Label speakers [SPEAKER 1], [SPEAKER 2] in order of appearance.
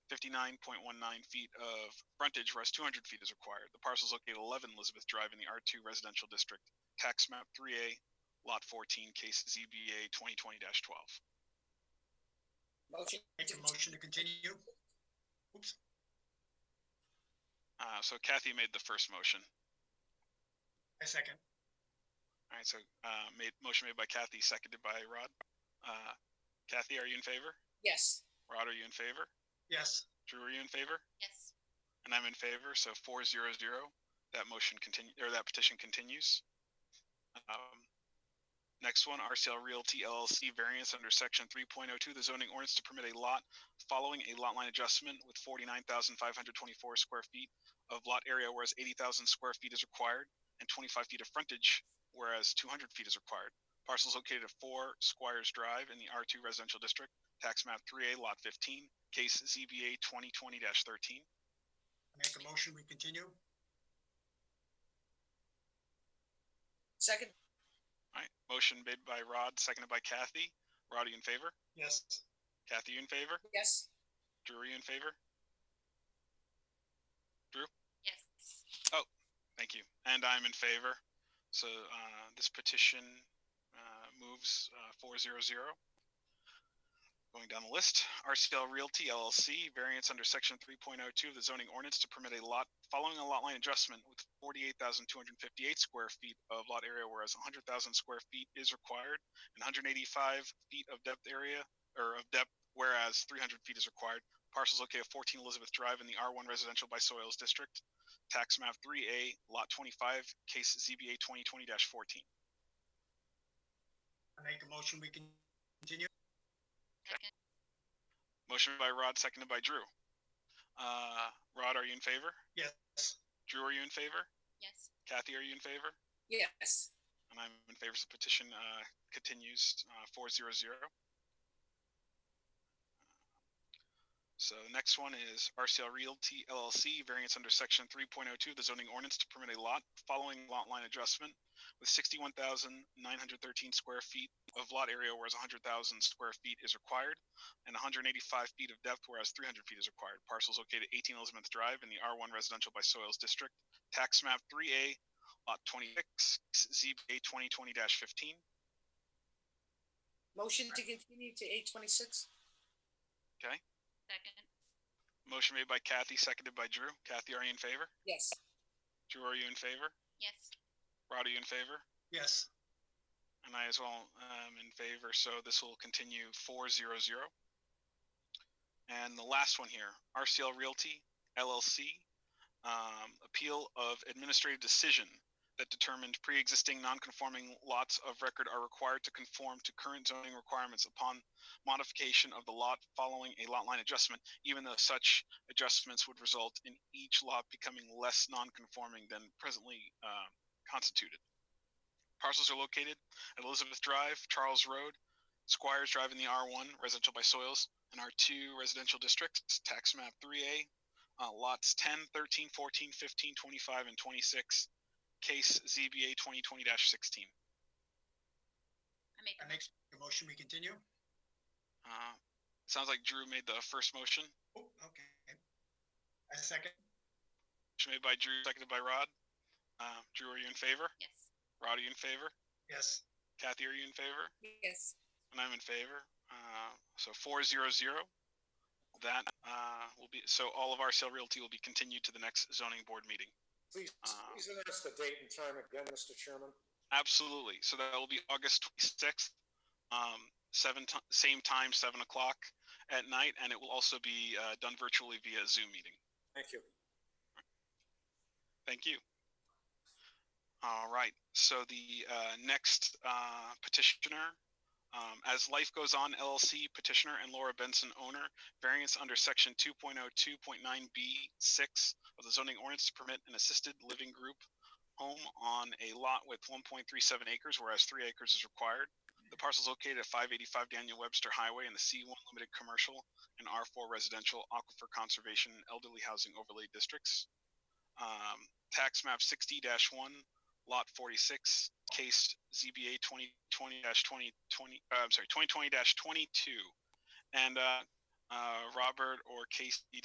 [SPEAKER 1] 59.19 feet of frontage, whereas 200 feet is required. The parcel is located at 11 Elizabeth Drive in the R2 Residential District, tax map 3A, lot 14, case ZBA 2020-12.
[SPEAKER 2] Motion.
[SPEAKER 3] Make a motion to continue? Oops,
[SPEAKER 1] Uh, so Kathy made the first motion.
[SPEAKER 3] I second.
[SPEAKER 1] All right, so uh, made motion made by Kathy, seconded by Rod. Uh, Kathy, are you in favor?
[SPEAKER 2] Yes.
[SPEAKER 1] Rod, are you in favor?
[SPEAKER 3] Yes,
[SPEAKER 1] Drew, are you in favor?
[SPEAKER 2] Yes.
[SPEAKER 1] And I'm in favor, so four zero zero. That motion continue, or that petition continues. Um, Next one, RCL Realty LLC variance under section three point oh two, the zoning ordinance to permit a lot following a lot line adjustment with forty-nine thousand five hundred twenty-four square feet of lot area, whereas eighty thousand square feet is required, and twenty-five feet of frontage, whereas two hundred feet is required. Parcels located at four Squires Drive in the R two residential district, tax map three A lot fifteen, case ZBA twenty twenty thirteen.
[SPEAKER 3] make a motion, we continue?
[SPEAKER 2] Second.
[SPEAKER 1] All right, motion made by Rod, seconded by Kathy. Rod, are you in favor?
[SPEAKER 3] Yes,
[SPEAKER 1] Kathy, you in favor?
[SPEAKER 2] Yes.
[SPEAKER 1] Drew, are you in favor?
[SPEAKER 2] Yes.
[SPEAKER 1] Thank you. And I'm in favor. So uh, this petition uh, moves uh, 400. Going down the list, RCL Realty LLC, variance under section 3.02 of the zoning ordinance to permit a lot following a lot line adjustment with 48,258 square feet of lot area, whereas 100,000 square feet is required, and 185 feet of depth area or of depth, whereas 300 feet is required. Parcels located at 14 Elizabeth Drive in the R1 Residential by Soils District tax map three A, lot twenty-five, case ZBA twenty twenty fourteen.
[SPEAKER 3] I make a motion, we can continue?
[SPEAKER 1] Motion by Rod, seconded by Drew. Uh, Rod, are you in favor?
[SPEAKER 3] Yes,
[SPEAKER 1] Drew, are you in favor?
[SPEAKER 2] Yes.
[SPEAKER 1] Kathy, are you in favor?
[SPEAKER 2] Yes.
[SPEAKER 1] And I'm in favor, so petition, uh, continues, uh, four zero zero. So the next one is RCL Realty LLC, variance under section three point oh two, the zoning ordinance to permit a lot following lot line adjustment with sixty-one thousand nine hundred thirteen square feet of lot area, whereas hundred thousand square feet is required, and hundred and eighty-five feet of depth, whereas three hundred feet is required. Parcels located at eighteen Elizabeth Drive in the R one residential by soils district, tax map three A, lot Uh, twenty-six, ZBA twenty twenty fifteen.
[SPEAKER 2] Motion to continue to eight twenty-six?
[SPEAKER 1] Okay.
[SPEAKER 2] Second.
[SPEAKER 1] Motion made by Kathy, seconded by Drew. Kathy, are you in favor?
[SPEAKER 2] Yes.
[SPEAKER 1] Drew, are you in favor?
[SPEAKER 2] Yes.
[SPEAKER 1] Rod, are you in favor?
[SPEAKER 3] yes,
[SPEAKER 1] And I as well am in favor, so this will continue four zero zero. And the last one here, RCL Realty LLC, um, appeal of administrative decision that determined pre-existing non-conforming lots of record are required to conform to current zoning requirements upon modification of the lot following a lot line adjustment, even though such adjustments would result in each lot becoming less non-conforming than presently uh, constituted. Parcels are located at Elizabeth Drive, Charles Road, Squires Drive in the R1 residential by soils, and R2 residential districts, tax map 3A, uh, lots 10, 13, 14, 15, 25, and 26, case ZBA 2020 16.
[SPEAKER 2] I make
[SPEAKER 3] I make a motion, we continue?
[SPEAKER 1] Uh, sounds like Drew made the first motion.
[SPEAKER 3] Oh, okay. I second,
[SPEAKER 1] Motion made by Drew, seconded by Rod. Uh, Drew, are you in favor?
[SPEAKER 2] Yes.
[SPEAKER 1] Rod, are you in favor?
[SPEAKER 3] yes,
[SPEAKER 1] Kathy, are you in favor?
[SPEAKER 2] Yes.
[SPEAKER 1] And I'm in favor. Uh, so four zero zero. That uh, will be so all of our sale realty will be continued to the next zoning board meeting.
[SPEAKER 4] Please,
[SPEAKER 1] Uh,
[SPEAKER 4] please announce the date and time again, Mr. Chairman.
[SPEAKER 1] Absolutely. So that will be August twenty sixth, um, seven ti- same time, seven o'clock at night, and it will also be uh, done virtually via Zoom meeting.
[SPEAKER 4] Thank you.
[SPEAKER 1] Thank you. All right, so the uh, next uh, petitioner, um, as Life Goes On LLC petitioner and Laura Benson owner, variance under section 2.02.9B6 of the zoning ordinance to permit an assisted living group home on a lot with 1.37 acres, whereas three acres is required. The parcel is located at 585 Daniel Webster Highway in the C1 Limited Commercial and R4 Residential Aquifer Conservation and Elderly Housing Overlay Districts um, tax map sixty one, lot forty-six, case ZBA twenty twenty twenty twenty, uh, I'm sorry, twenty twenty twenty-two. And, uh, uh, Robert or Casey